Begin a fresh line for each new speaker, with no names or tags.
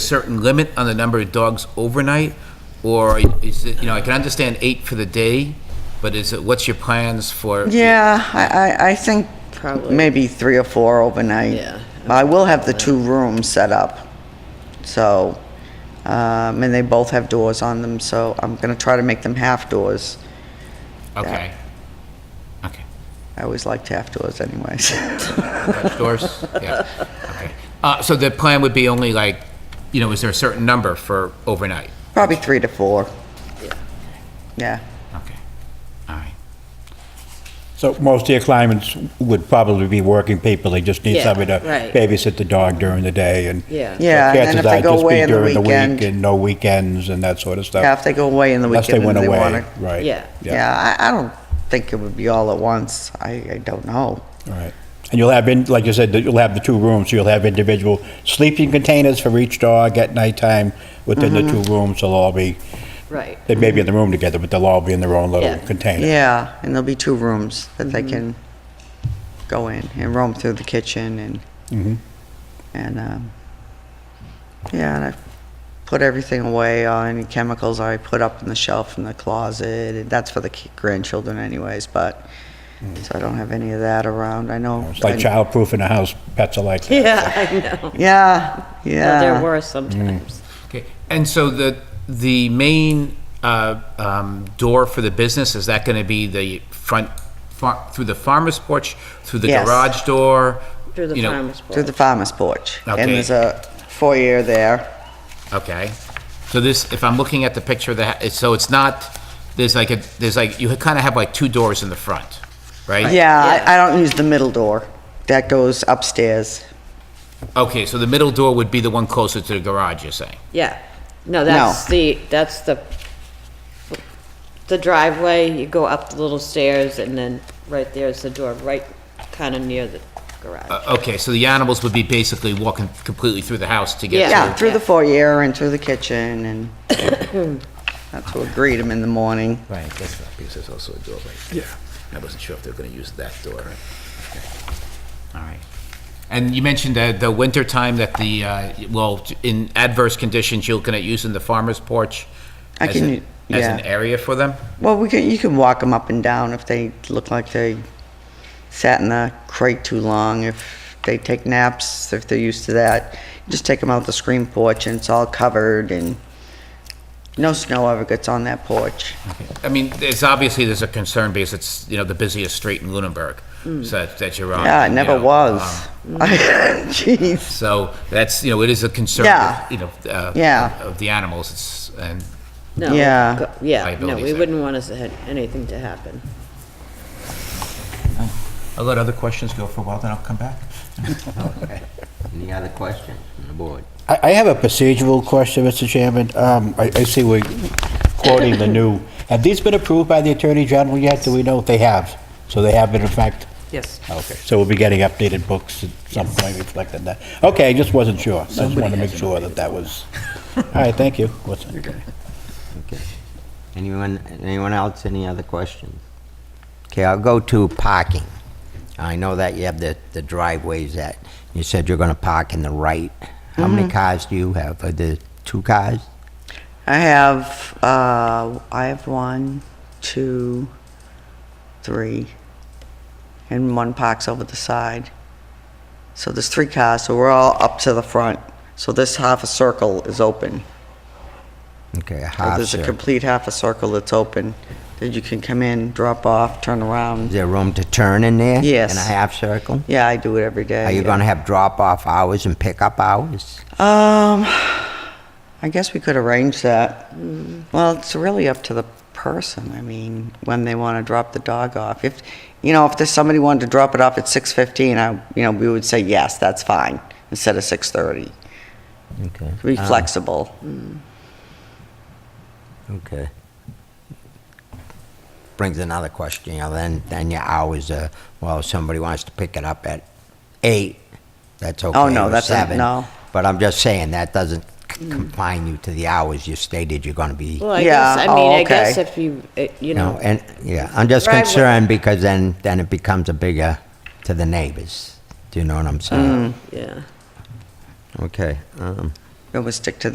certain limit on the number of dogs overnight? Or is it, you know, I can understand eight for the day, but is it, what's your plans for?
Yeah, I, I, I think
Probably.
maybe three or four overnight.
Yeah.
I will have the two rooms set up, so, um, and they both have doors on them, so I'm gonna try to make them half doors.
Okay. Okay.
I always liked half doors anyways.
Garage doors? Yeah, okay. Uh, so the plan would be only like, you know, is there a certain number for overnight?
Probably three to four. Yeah.
Okay, all right.
So most of your clients would probably be working people, they just need
Yeah,
somebody to
right.
babysit the dog during the day and.
Yeah.
Yeah, and then
chances
if they
are it'd
go
just be
away on the
during
weekend-
week And no weekends and that sort of stuff.
Yeah, if they go away in the
Unless they
weekend
went
and they
away,
wanna.
right.
Yeah.
Yeah, I, I don't think it would be all at once. I, I don't know.
All right. And you'll have, in- like you said, that you'll have the two rooms, so you'll have individual sleeping containers for each dog at nighttime within the
Mm-hmm.
two rooms, they'll all be,
Right.
they may be in the room together, but they'll all be in their own
Yeah.
little container.
Yeah, and there'll be two rooms that they can go in and roam through the kitchen and, and, um, yeah, and I put everything away, uh, any chemicals I put up on the shelf in the closet, and that's for the ki- grandchildren anyways, but, so I don't have any of that around, I know.
It's like
I-
childproof in a house, pets are like that.
Yeah, I know.
Yeah, yeah.
They're worse sometimes.
Okay, and so the, the main uh, um, door for the business, is that going to be the front, far- through the farmer's porch, through the
Yes.
garage door?
Through the
you know-
farmer's
Through
porch.
the farmer's porch. And
Okay.
there's a foyer there.
Okay, so this, if I'm looking at the picture of the, ha- so it's not, there's like a, there's like, you kind of have like two doors in the front, right?
Yeah, I, I don't use the middle door. That goes upstairs.
Okay, so the middle door would be the one closer to the garage, you're saying?
Yeah. No, that's the, that's the, the driveway, you go up the little stairs and then right there's the door, right kind of near the garage.
Uh, Okay, so the animals would be basically walking completely through the house to get to...
Yeah, through the
Yeah.
foyer and through the kitchen and that's what greet them in the morning.
Right, that's not, because there's also a door right there. I wasn't sure if they were gonna use that door, right? All right. And you mentioned that the winter time that the, uh, well, in adverse conditions, you're looking at using the farmer's porch
I
as
can
an-
u-
as
yeah.
an area for them?
Well, we can, you can walk them up and down if they look like they sat in the crate too long, if they take naps, if they're used to that. Just take them out the screen porch and it's all covered and no snow ever gets on that porch.
I mean, it's obviously, there's a concern because it's, you know, the busiest street in Lunenburg, so that that you're on.
Hmm. Yeah, it
you
never
know,
was.
um,
Jeez.
So that's, you know, it is a concern,
Yeah.
of, you know, uh,
Yeah.
of the animals, it's, and,
No,
Yeah.
go- Yeah, no,
Liabilities
we
there.
wouldn't want us to have anything to happen.
I'll let other questions go for a while, then I'll come back.
Any other questions from the board?
I I have a procedural question, Mr. Chairman. Um, I I see we're quoting the new, have these been approved by the Attorney General yet? Do we know if they have? So they have been in fact?
Yes.
Okay, so we'll be getting updated books at some point reflecting that. Okay, I just wasn't sure. I just wanted to make sure that that was, all right, thank you. What's-
Okay. Anyone, anyone else, any other questions? Okay, I'll go to parking. I know that you have the, the driveways that, you said you're gonna park in the right. How many
Mm-hmm.
cars do you have? Are there two cars?
I have, uh, I have one, two, three, and one parks over the side. So there's three cars, so we're all up to the front. So this half a circle is open.
Okay, a
So
half
Uh, There's a
circle.
complete half a circle that's open, that you can come in, drop off, turn
Is
around.
there room to turn in there?
Yes.
In a half circle?
Yeah, I do it every day.
Are you gonna have drop-off hours and pickup hours?
Um, I guess we could arrange that. Well, it's really up to the person, I mean, when they want to drop the dog off. If, you know, if there's somebody wanted to drop it off at 6:15, I, you know, we would say, yes, that's fine, instead of 6:30.
Okay.
Be flexible.
Okay. Brings another question, you know, then, then your hours are, well, if somebody wants to pick it up at eight, that's okay.
no,
or
that's not-
seven.
no.
But I'm just saying, that doesn't c- confine you to the hours you stated you're gonna be,
Well, I
Yeah,
guess, I
oh,
mean, I guess
okay.
if you, it- you
you know,
know,
and, yeah, I'm just
Driveway.
concerned because then, then it becomes a bigger to the neighbors. Do you know what I'm saying?
yeah.
Okay, um,
Then we'll stick to